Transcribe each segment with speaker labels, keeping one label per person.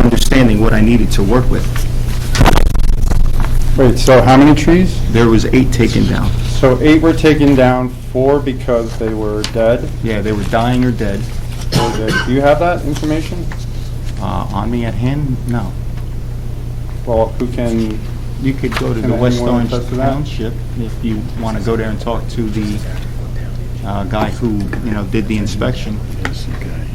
Speaker 1: understanding what I needed to work with.
Speaker 2: Wait, so how many trees?
Speaker 1: There was eight taken down.
Speaker 2: So eight were taken down, four because they were dead.
Speaker 1: Yeah, they were dying or dead.
Speaker 2: Or they- Do you have that information?
Speaker 1: Uh, On me at hand? No.
Speaker 2: Well, who can,
Speaker 1: You could go to
Speaker 2: Can
Speaker 1: the West
Speaker 2: anyone
Speaker 1: Orange
Speaker 2: attest to that?
Speaker 1: Township if you want to go there and talk to the uh, guy who, you know, did the inspection.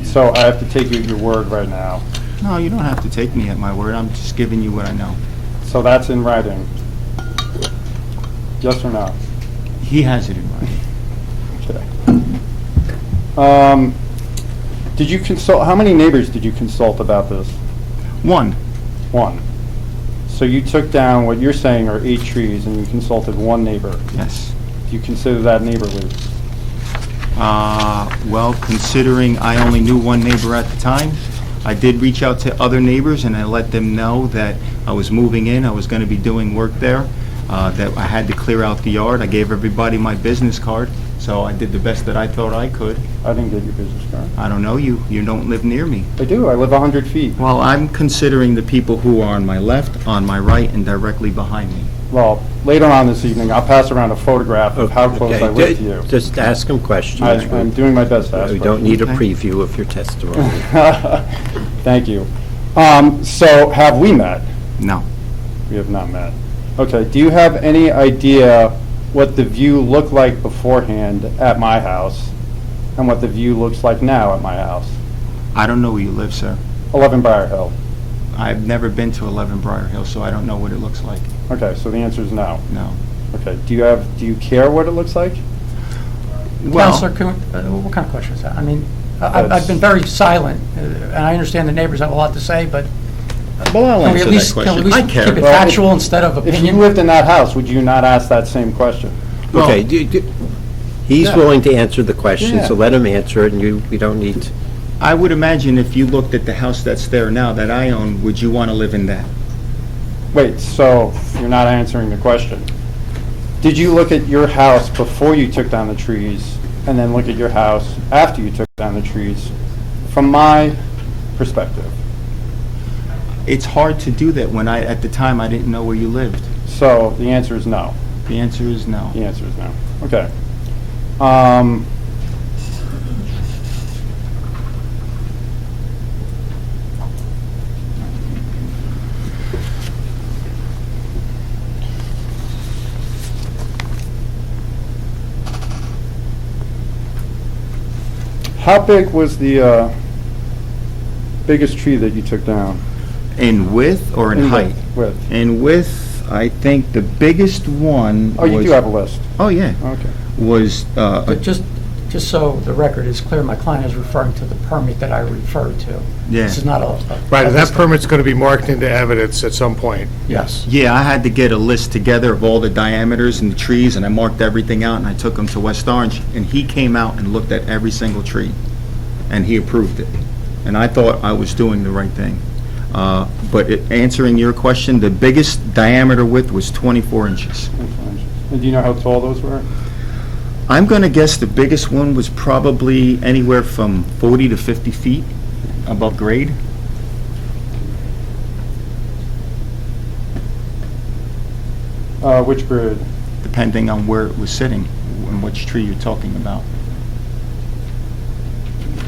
Speaker 2: so I have to take you at your word right now.
Speaker 1: No, you don't have to take me at my word, I'm just giving you what I know.
Speaker 2: So that's in writing? Yes or no?
Speaker 1: He has it in writing.
Speaker 2: Okay. Um, Did you consult, how many neighbors did you consult about this?
Speaker 1: One,
Speaker 2: One. So you took down what you're saying are eight trees and you consulted one neighbor.
Speaker 1: yes.
Speaker 2: Do you consider that neighborly?
Speaker 1: Uh, Well, considering I only knew one neighbor at the time, I did reach out to other neighbors, and I let them know that I was moving in, I was going to be doing work there, uh, that I had to clear out the yard. I gave everybody my business card, so I did the best that I thought I could.
Speaker 2: I didn't get your business card.
Speaker 1: I don't know you, you don't live near me.
Speaker 2: I do, I live 100 feet.
Speaker 1: Well, I'm considering the people who are on my left, on my right, and directly behind me.
Speaker 2: Well, later on this evening, I'll pass around a photograph of how close I
Speaker 3: Okay,
Speaker 2: live to you.
Speaker 3: Just ask him questions.
Speaker 2: I- I'm doing my best to ask
Speaker 3: We don't
Speaker 2: questions.
Speaker 3: need a
Speaker 1: Okay.
Speaker 3: preview of your testimony.
Speaker 2: Thank you. Um, So have we met?
Speaker 1: No.
Speaker 2: We have not met. Okay, do you have any idea what the view looked like beforehand at my house and what the view looks like now at my house?
Speaker 1: I don't know where you live, sir.
Speaker 2: 11 Briar Hill.
Speaker 1: I've never been to 11 Briar Hill, so I don't know what it looks like,
Speaker 2: Okay, so the answer is no.
Speaker 1: no.
Speaker 2: Okay, do you have, do you care what it looks like?
Speaker 1: Well,
Speaker 4: Counselor, can we- uh, what kind of question is that? I mean, I- I've
Speaker 2: That's-
Speaker 4: I've been very silent, uh, and I understand the neighbors have a lot to say, but
Speaker 3: Well,
Speaker 4: can we at least, can we at least keep it
Speaker 2: Well, if-
Speaker 4: factual instead of
Speaker 2: If you
Speaker 4: opinion?
Speaker 2: lived in that house, would you not ask that same question?
Speaker 3: Okay, do- do- he's
Speaker 2: Yeah.
Speaker 3: willing to answer the question,
Speaker 2: Yeah.
Speaker 3: so let him answer it, and you, we don't need, to-
Speaker 1: I would imagine if you looked at the house that's there now that I own, would you want to live in that?
Speaker 2: Wait, so you're not answering the question. Did you look at your house before you took down the trees and then look at your house after you took down the trees? From my perspective.
Speaker 1: It's hard to do that when I, at the time, I didn't know where you lived.
Speaker 2: So the answer is no.
Speaker 1: The answer is no.
Speaker 2: The answer is no. Okay. Um, How big was the uh, biggest tree that you took down?
Speaker 1: In width or in
Speaker 2: In
Speaker 1: height?
Speaker 2: width.
Speaker 1: In width, I think the biggest one was...
Speaker 2: Oh, you do have a list.
Speaker 1: Oh, yeah,
Speaker 2: Okay.
Speaker 1: was, uh,
Speaker 4: But just, just so the record is clear, my client is referring to the permit that I referred to.
Speaker 1: yeah.
Speaker 4: This is not a... a-
Speaker 5: Right, and that permit's going to be marked into evidence at some point.
Speaker 4: Yes.
Speaker 1: Yeah, I had to get a list together of all the diameters and the trees, and I marked everything out, and I took them to West Orange, and he came out and looked at every single tree, and he approved it. And I thought I was doing the right thing. Uh, But it- answering your question, the biggest diameter width was 24 inches.
Speaker 2: And do you know how tall those were?
Speaker 1: I'm going to guess the biggest one was probably anywhere from 40 to 50 feet above grade.
Speaker 2: Uh, Which grade?
Speaker 1: depending on where it was sitting and which tree you're talking about.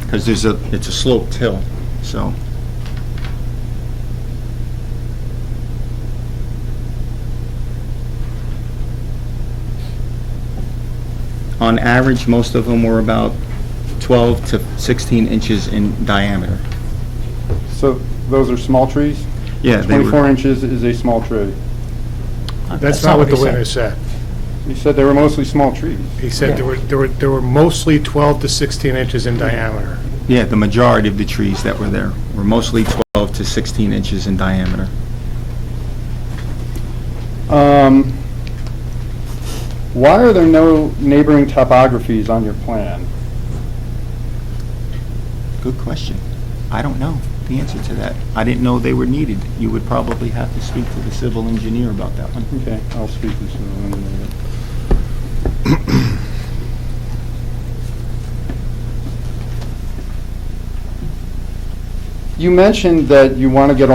Speaker 1: Because there's a, it's a sloped hill, so. On average, most of them were about 12 to 16 inches in diameter.
Speaker 2: So those are small trees?
Speaker 1: Yeah, they were-
Speaker 2: 24 inches is a small tree.
Speaker 5: That's not what the
Speaker 4: he said.
Speaker 5: witness said.
Speaker 2: You said they were mostly small trees.
Speaker 5: He said there were, there were, there were mostly 12 to 16 inches in diameter.
Speaker 1: Yeah, the majority of the trees that were there were mostly 12 to 16 inches in diameter.
Speaker 2: Um, Why are there no neighboring topographies on your plan?
Speaker 1: Good question. I don't know the answer to that. I didn't know they were needed. You would probably have to speak to the civil engineer about that one.
Speaker 2: Okay, I'll speak to someone in a minute. You mentioned that you want to get